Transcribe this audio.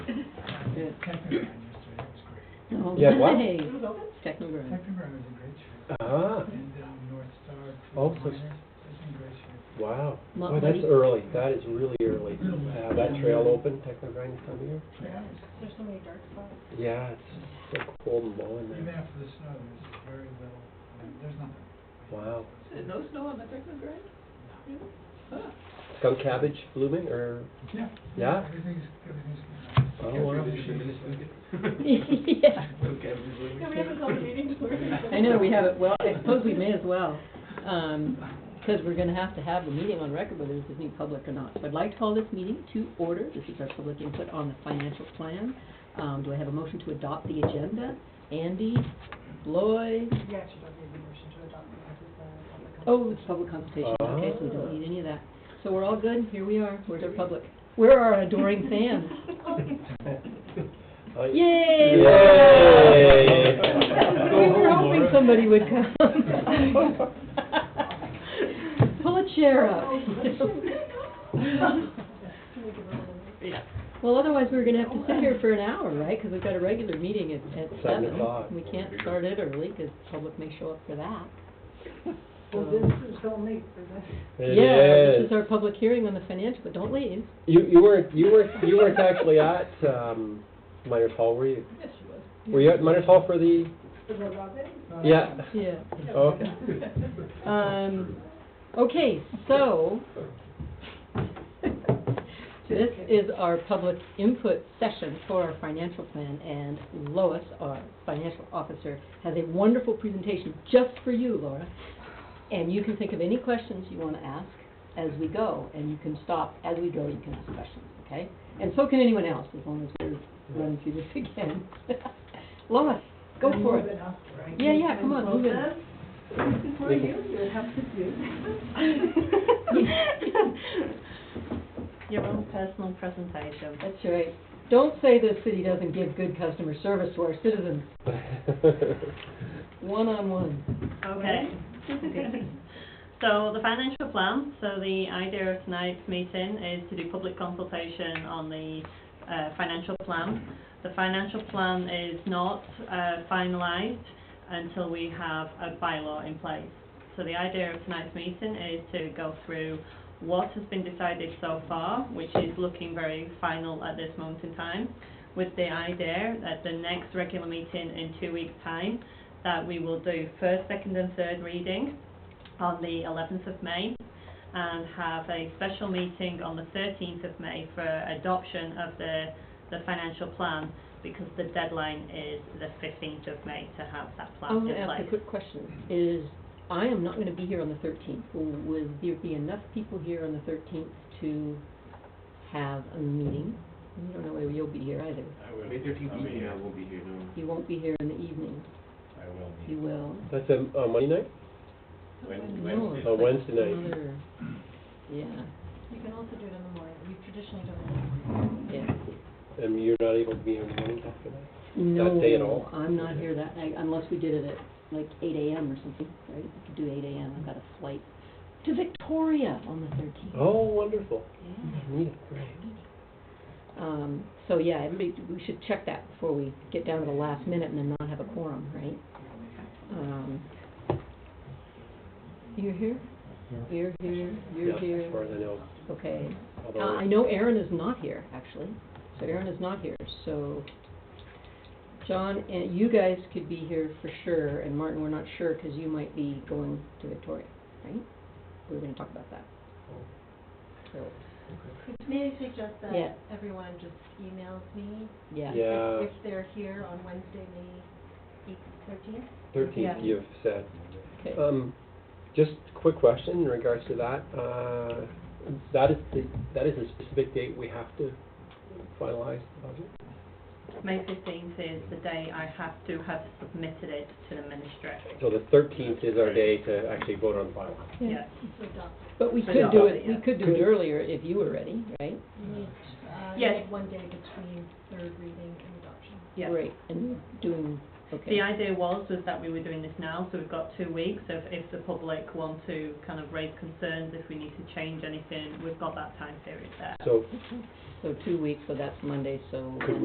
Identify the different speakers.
Speaker 1: did.
Speaker 2: Technicolor yesterday, it was great.
Speaker 1: No
Speaker 3: Yeah, what?
Speaker 1: way.
Speaker 4: It was open?
Speaker 1: Technoburn.
Speaker 2: Technicolor was in great shape.
Speaker 3: Ah,
Speaker 2: And, um, North Star. Fleet
Speaker 3: Oh, so-
Speaker 2: Liner, It's in great shape.
Speaker 3: wow.
Speaker 1: Mo-
Speaker 3: Boy, that's
Speaker 1: money. Mm-hmm.
Speaker 3: early. That is really early. Uh, that trail open, Technogrind is coming here?
Speaker 2: Yeah.
Speaker 4: There's so many dark spots.
Speaker 3: Yeah, it's so cold and blowing
Speaker 2: Even
Speaker 3: there.
Speaker 2: after the snow, there's very little, there's nothing.
Speaker 3: Wow.
Speaker 1: Uh,
Speaker 5: No snow on the Technogrind?
Speaker 3: Skunk cabbage blooming or,
Speaker 2: Yeah.
Speaker 3: Yeah?
Speaker 2: Everything's, everything's. good.
Speaker 3: oh, wow.
Speaker 1: Yeah,
Speaker 4: Yeah, we haven't called a meeting.
Speaker 1: I know, we have it, well, I suppose we may as well, um, because we're gonna have to have the meeting on record whether this is new public or not. So I'd like to call this meeting to order, this is our public input on the financial plan. Um, do I have a motion to adopt the agenda? Andy, Lloyd,
Speaker 4: You actually don't need a motion to adopt the office, uh, on the company.
Speaker 1: oh, it's public consultation, okay, so we
Speaker 3: Ah.
Speaker 1: don't need any of that. So we're all good, here we are, where's our public? Where are our adoring fans?
Speaker 3: Uh,
Speaker 1: Yay!
Speaker 3: Yay!
Speaker 1: We were hoping somebody would come. Pull a chair up.
Speaker 4: Can we give her a little?
Speaker 1: Yeah. Well, otherwise, we're gonna have to sit here for an hour, right? Because we've got a regular meeting at, at
Speaker 3: Seven
Speaker 1: seven.
Speaker 3: o'clock.
Speaker 1: We can't start it early, because public may show up for that.
Speaker 4: Well, this is so late for this.
Speaker 3: It
Speaker 1: Yeah,
Speaker 3: is.
Speaker 1: this is our public hearing on the financial, but don't leave.
Speaker 3: You, you weren't, you weren't, you weren't actually at, um, Miners Hall, were you?
Speaker 4: Yes, she was.
Speaker 3: Were you at Miners Hall for the,
Speaker 4: The road robbery?
Speaker 3: yeah?
Speaker 1: Yeah.
Speaker 3: Okay.
Speaker 1: Um, okay, so, this is our public input session for our financial plan, and Lois, our financial officer, has a wonderful presentation just for you, Laura. And you can think of any questions you want to ask as we go, and you can stop as we go, you can ask questions, okay? And so can anyone else, as long as we're running through this again. Lois, go for it. Yeah, yeah, come on, move it.
Speaker 4: This is for you, you would have to do.
Speaker 6: Your own personal presentation.
Speaker 1: That's right. Don't say the city doesn't give good customer service to our citizens, one-on-one.
Speaker 6: Okay. So the financial plan, so the idea of tonight's meeting is to do public consultation on the uh, financial plan. The financial plan is not uh, finalised until we have a bylaw in place. So the idea of tonight's meeting is to go through what has been decided so far, which is looking very final at this moment in time, with the idea that the next regular meeting in two weeks' time, that we will do first, second and third reading on the 11th of May and have a special meeting on the 13th of May for adoption of the, the financial plan because the deadline is the 15th of May to have that
Speaker 1: I
Speaker 6: plan
Speaker 1: want to
Speaker 6: in
Speaker 1: ask a
Speaker 6: place.
Speaker 1: quick question, is, I am not going to be here on the thirteenth. Will there be enough people here on the thirteenth to have a meeting? You don't know whether you'll be here either.
Speaker 7: May thirteenth evening, I will be here, no.
Speaker 1: You won't be here in the evening,
Speaker 7: I will
Speaker 1: you will.
Speaker 3: That's a, a Monday night?
Speaker 1: No, it's
Speaker 3: On
Speaker 1: like
Speaker 3: Wednesday night.
Speaker 1: another- Yeah,
Speaker 4: You can also do it in the morning, we traditionally do it in the morning.
Speaker 1: yeah.
Speaker 3: And you're not able to be here in the morning after that? day at
Speaker 1: No,
Speaker 3: all?
Speaker 1: I'm not here that night, unless we did it at like eight AM or something, right? We could do eight AM, I've got a flight to Victoria on the thirteenth.
Speaker 3: Oh, wonderful.
Speaker 1: Yeah.
Speaker 3: Neat, great.
Speaker 1: Um, so yeah, everybody, we should check that before we get down to the last minute and then not have a quorum, right? Um, you're here? You're here,
Speaker 3: Yeah,
Speaker 1: you're
Speaker 3: As far
Speaker 1: here,
Speaker 3: as I know,
Speaker 1: okay. Uh,
Speaker 3: although.
Speaker 1: I know Aaron is not here, actually, so Aaron is not here, so John, and you guys could be here for sure, and Martin, we're not sure, because you might be going to Victoria, right? We were gonna talk about that. So,
Speaker 4: May I suggest that
Speaker 1: Yeah.
Speaker 4: everyone just emails me?
Speaker 1: yeah.
Speaker 3: Yeah,
Speaker 4: If they're here on Wednesday, May thirteenth?
Speaker 3: thirteenth,
Speaker 6: Yeah.
Speaker 3: you've said.
Speaker 1: Okay.
Speaker 3: Um, just quick question in regards to that. Uh, that is, the that is a specific date we have to finalize the budget?
Speaker 6: May 15th is the day I have to have submitted it to the ministry.
Speaker 3: So the thirteenth is our day to actually vote on the bylaw.
Speaker 1: Yeah.
Speaker 6: Yes.
Speaker 4: So adopt.
Speaker 1: But we
Speaker 6: But
Speaker 1: could
Speaker 6: not
Speaker 1: do
Speaker 6: all
Speaker 1: it,
Speaker 6: yet.
Speaker 1: we could do it earlier if you were ready, right?
Speaker 4: You need, uh, you
Speaker 6: Yes.
Speaker 4: need one day between third reading and adoption.
Speaker 6: Yeah.
Speaker 1: Right, and doing, okay.
Speaker 6: The idea was, was that we were doing this now, so we've got two weeks, so if, if the public want to kind of raise concerns, if we need to change anything, we've got that time period there.
Speaker 3: So
Speaker 1: So two weeks, so that's Monday, so.
Speaker 3: Could